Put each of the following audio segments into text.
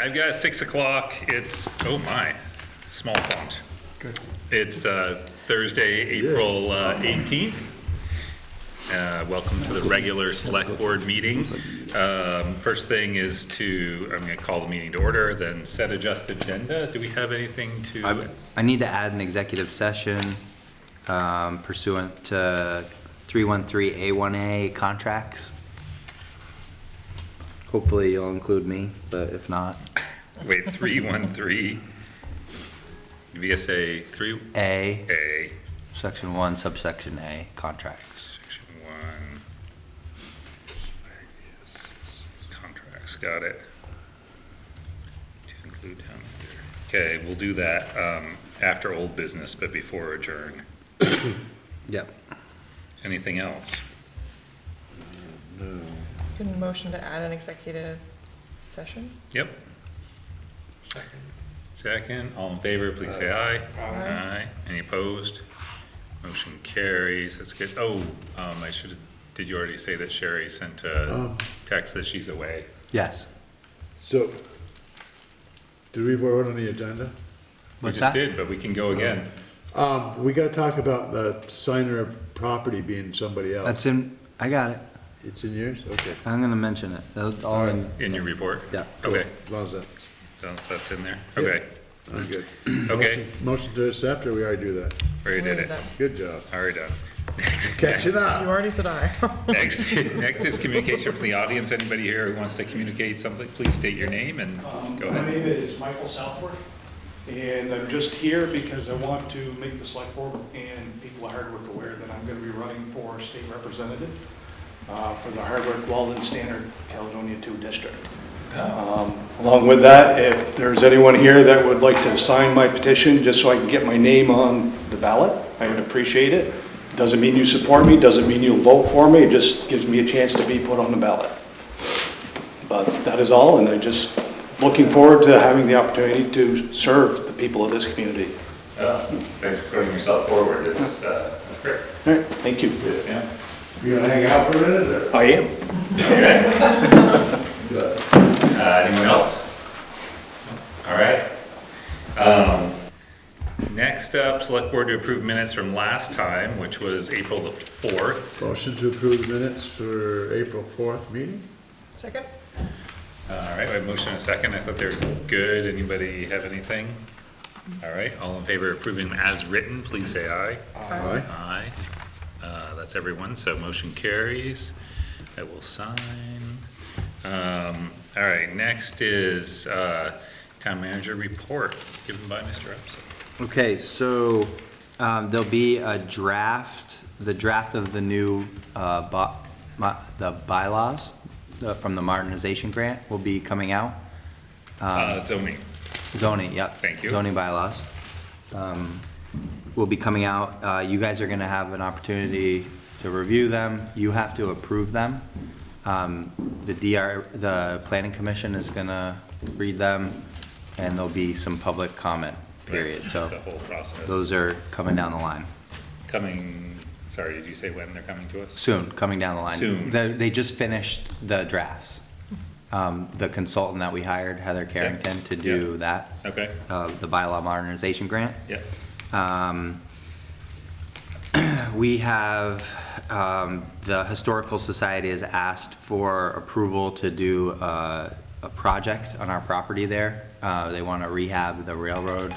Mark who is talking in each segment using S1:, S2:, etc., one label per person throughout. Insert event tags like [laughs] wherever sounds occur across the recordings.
S1: I've got six o'clock. It's, oh my, small font. It's uh, Thursday, April uh, 18th. Uh, Welcome to the regular select board meeting. Um, First thing is to, I'm going to call the meeting to order, then set adjusted agenda. Do we have anything to?
S2: I need to add an executive session um, pursuant to 313A1A contracts. Hopefully you'll include me, but if not,
S1: Wait, 313, VSA 3A,
S2: A, section 1, subsection A, contracts.
S1: section 1. Contracts, got it. To include town manager. Okay, we'll do that um, after old business, but before adjourn.
S2: Yep.
S1: Anything else?
S3: Can motion to add an executive session?
S1: Yep. Second, all in favor, please say aye. Aye. Any opposed? Motion carries, that's good. Oh, um, I should, did you already say that Sherry sent
S2: Um.
S1: a text that she's away?
S2: Yes.
S4: So, did we vote on the agenda?
S2: What's
S1: We just
S2: that?
S1: did, but we can go again.
S4: Um, we gotta talk about the signer of property being somebody else.
S2: That's in, I got it.
S4: It's in yours? Okay.
S2: I'm going to mention it. That's all in-
S1: In your report?
S2: Yeah.
S1: Okay,
S4: How's that?
S1: so that's in there, okay,
S4: I'm good.
S1: okay,
S4: Motion to accept, or we already do that?
S1: already did it,
S4: Good job.
S1: already done. [laughs]
S4: Catching
S3: You
S4: up.
S3: already said aye. [laughs]
S1: Next, next is communication from the audience, anybody here who wants to communicate something, please state your Um, name and go
S5: My
S1: ahead.
S5: name is Michael Southworth, and I'm just here because I want to make the select board and people at Hardwick aware that I'm going to be running for state representative uh, for the Hardwick Walden Standard Caledonia 2 District. Um, Along with that, if there's anyone here that would like to sign my petition, just so I can get my name on the ballot, I would appreciate it. Doesn't mean you support me, doesn't mean you'll vote for me, it just gives me a chance to be put on the ballot. But that is all, and I'm just looking forward to having the opportunity to serve the people of this community.
S1: uh, Thanks for putting yourself forward, it's, uh, it's great.
S5: All right, thank you.
S1: Yeah.
S4: You gonna hang out for a minute, or?
S5: I am.
S1: Uh, anyone else? All right. Um, Next up, select board to approve minutes from last time, which was April the fourth.
S4: Motion to approve the minutes for April fourth meeting?
S3: Second?
S1: All right, we have motion and a second. I thought they were good. Anybody have anything? All right, all in favor of approving as written, please say aye.
S4: Aye.
S1: Aye. Uh, that's everyone, so motion carries. I will sign. Um, all right, next is, uh, town manager report given by Mr. Upson.
S2: Okay, so um, there'll be a draft, the draft of the new, uh, by- my- the bylaws uh, from the modernization grant will be coming out. Um,
S1: Uh, zoning.
S2: Zoning, yep.
S1: Thank you.
S2: Zoning bylaws um, will be coming out. Uh, You guys are going to have an opportunity to review them. You have to approve them. Um, The DR, the planning commission is going to read them, and there'll be some public comment period.
S1: It's The
S2: So
S1: whole process.
S2: those are coming down the line,
S1: Coming, sorry, did you say when they're coming to us?
S2: soon, coming down the line.
S1: Soon.
S2: The- They just finished the drafts. Um, The consultant that we hired, Heather Carrington, to do
S1: yeah.
S2: that,
S1: Okay,
S2: uh, the bylaw modernization grant.
S1: yeah.
S2: Um, We have, um, the Historical Society has asked for approval to do uh, a project on our property there. Uh, They want to rehab the railroad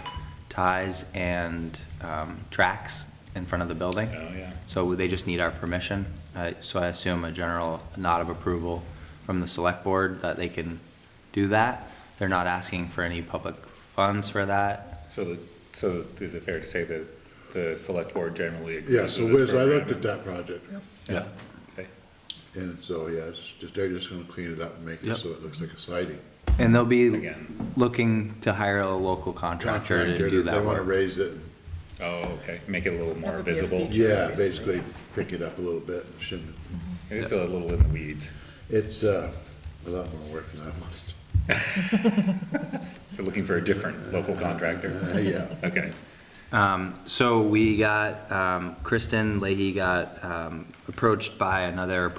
S2: ties and um, tracks in front of the building.
S1: Oh, yeah.
S2: So they just need our permission. Uh, So I assume a general nod of approval from the select board that they can do that. They're not asking for any public funds for that.
S1: So, the so is it fair to say that the select board generally agrees
S4: Yeah,
S1: with
S4: so
S1: this
S4: Wiz, I looked at
S1: program?
S4: that project,
S1: Yeah. Okay.
S4: and so, yeah, it's just, they're just gonna clean it up and make it
S2: Yep.
S4: so it looks like a siding.
S2: And they'll be
S1: Again.
S2: looking to hire a local contractor to do
S4: They
S2: that
S4: wanna
S2: work.
S4: raise it, and-
S1: Oh, okay, make it a little more
S3: would be a
S1: visible.
S3: feature.
S4: yeah, basically pick it up a little bit, and shouldn't,
S1: It is a little in the weeds.
S4: it's, uh, a lot more work than I wanted.
S1: So looking for a different local contractor?
S4: Yeah.
S1: Okay,
S2: Um, so we got, um, Kristen Leahy got, um, approached by another